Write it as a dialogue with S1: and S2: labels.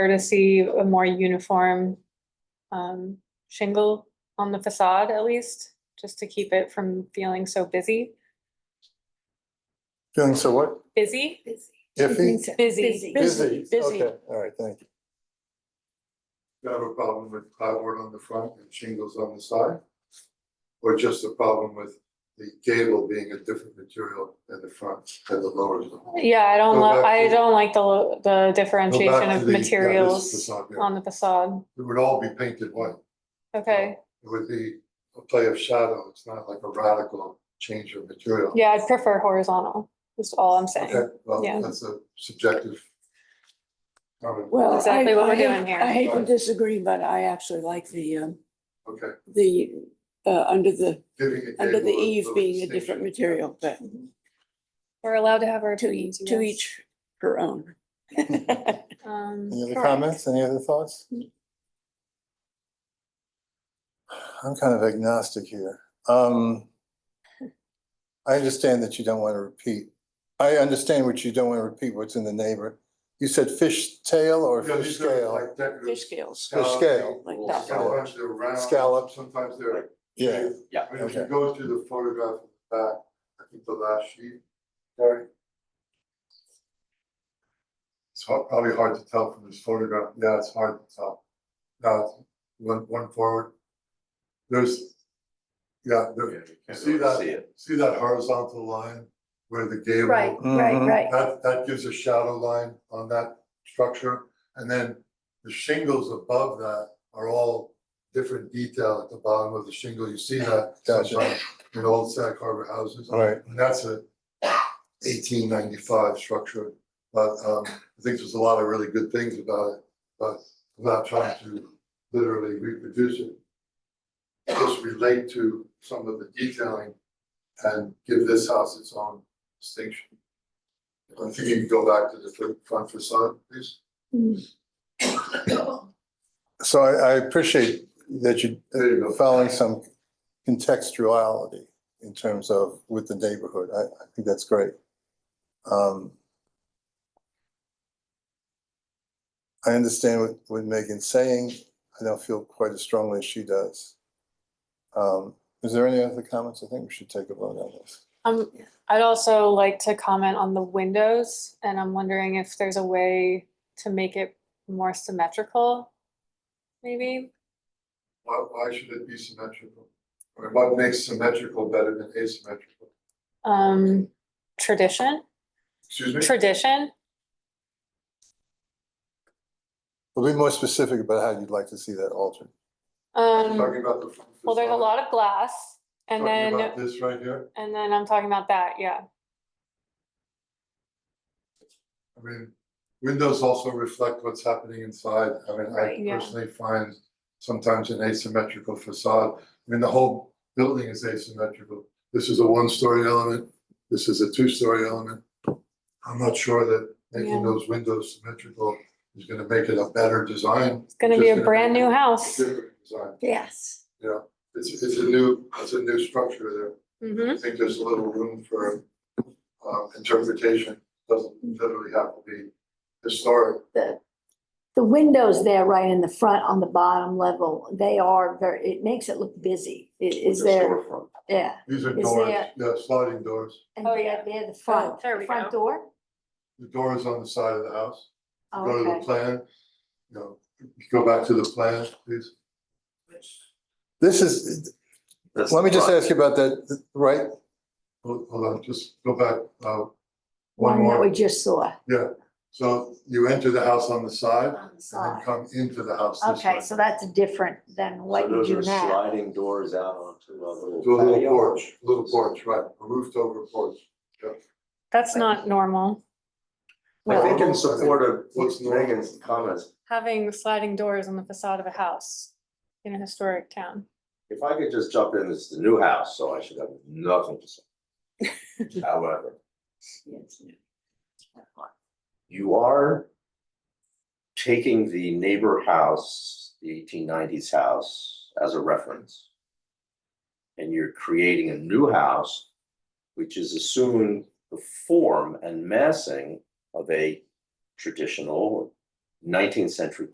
S1: her to see a more uniform um, shingle on the facade at least, just to keep it from feeling so busy,
S2: Feeling so what?
S1: busy,
S2: Iffy?
S1: busy.
S2: Busy.
S1: Busy.
S2: Okay, all right, thank you.
S3: You have a problem with plywood on the front and shingles on the side? Or just a problem with the gable being a different material than the front and the lower zone?
S1: Yeah, I don't
S3: Go
S1: love,
S3: back
S1: I
S3: to-
S1: don't like the, lo- the
S3: Go back
S1: differentiation
S3: to
S1: of
S3: the- yeah, this is
S1: materials
S3: facade, yeah.
S1: on the facade.
S3: It would all be painted white.
S1: Okay,
S3: It would be a play of shadow. It's not like a radical change of material.
S1: yeah, I'd prefer horizontal, is all I'm saying.
S3: Okay, well,
S1: yeah.
S3: that's a subjective comment.
S4: Well,
S1: Exactly
S4: I-
S1: what we're
S4: I hate-
S1: doing here.
S4: I hate to disagree, but I actually like the, um,
S3: Okay,
S4: the, uh, under the,
S3: giving it.
S4: under the eave being a different material, but
S1: We're allowed to have our
S4: to
S1: opinions,
S4: each,
S1: you
S4: to
S1: guys.
S4: each her own.
S1: Um,
S2: Any other
S1: correct.
S2: comments, any other thoughts? I'm kind of agnostic here. Um, I understand that you don't want to repeat. I understand what you don't want to repeat, what's in the neighbor. You said fish tail or fish scale?
S4: Fish scales,
S2: Fish scale.
S4: like that.
S3: Sometimes they're round.
S2: Scallop.
S3: Sometimes they're.
S2: Yeah,
S5: Yeah.
S3: I mean, If
S2: Okay.
S3: you go through the photograph in the back, I think the last sheet, Gary. It's hard- probably hard to tell from this photograph, yeah, it's hard to tell. Now, it's one, one forward. There's, yeah, there- see that, see that horizontal line where the gable?
S6: Right, right,
S2: Mhm.
S6: right.
S3: That, that gives a shadow line on that structure, and then the shingles above that are all different detail at the bottom of the shingle, you see that
S2: Gotcha.
S3: sometimes in old Sag Harbor houses.
S2: all right.
S3: And that's a eighteen ninety-five structure, but um, I think there's a lot of really good things about it, but I'm not trying to literally reproduce it. Just relate to some of the detailing and give this house its own distinction. I think you can go back to the fr- front facade, please.
S2: So I, I appreciate that you,
S3: There you go.
S2: following some contextuality in terms of with the neighborhood. I, I think that's great. Um, I understand what, what Megan's saying. I don't feel quite as strongly as she does. Um, is there any other comments? I think we should take a vote on this.
S1: Um, I'd also like to comment on the windows, and I'm wondering if there's a way to make it more symmetrical, maybe?
S3: Why, why should it be symmetrical? I mean, What makes symmetrical better than asymmetrical?
S1: Um, tradition,
S3: Excuse me?
S1: tradition,
S2: Well, be more specific about how you'd like to see that altered.
S1: um,
S3: Talking about the front facade.
S1: well, there's a lot of glass, and
S3: Talking
S1: then,
S3: about this right here,
S1: and then I'm talking about that, yeah.
S3: I mean, windows also reflect what's happening inside, I mean,
S6: Right.
S3: I
S1: Yeah.
S3: personally find sometimes an asymmetrical facade, I mean, the whole building is asymmetrical. This is a one-story element, this is a two-story element. I'm not sure that making
S1: Yeah.
S3: those windows symmetrical is gonna make it a better design.
S1: It's gonna
S3: Just
S1: be a
S3: gonna be-
S1: brand new house.
S3: different design.
S6: Yes.
S3: It's, it's a new, it's a new structure there.
S1: Mm-hmm,
S3: I think there's a little room for um interpretation, doesn't literally have to be historic.
S6: The, the windows there right in the front on the bottom level, they are very, it makes it look busy. I- Is
S3: with the
S6: there,
S3: storefront.
S6: yeah.
S3: These are
S6: is
S3: doors,
S6: there-
S3: yeah, sliding doors,
S6: And
S1: Oh,
S6: they're-
S1: yeah.
S6: They're the front,
S1: there we
S6: the front
S1: go.
S6: door?
S3: the door is on the side of the house,
S6: Oh,
S3: go to the
S6: Okay.
S3: plan, you know, go back to the plan, please.
S2: This is, let me just ask you about that, right?
S3: Hold hold on, just go back, uh, one
S6: One that we
S3: more,
S6: just saw
S3: so you enter the house on the side
S6: on the
S3: and then
S6: side.
S3: come into the house this way.
S6: Okay, so that's different than what you do
S5: Those are
S6: now.
S5: sliding doors out onto a
S3: To a
S5: little
S3: little
S5: patio.
S3: porch, little porch, right, a roofed over porch.
S1: that's not normal,
S5: I think in
S3: Well-
S5: support
S3: What's
S5: of
S3: normal?
S5: Megan's comments,
S1: having sliding doors on the facade of a house in a historic town.
S5: if I could just jump in, it's the new house, so I should have nothing to say. However, you are taking the neighbor house, the eighteen nineties house, as a reference. And you're creating a new house, which is assuming the form and massing of a traditional nineteenth century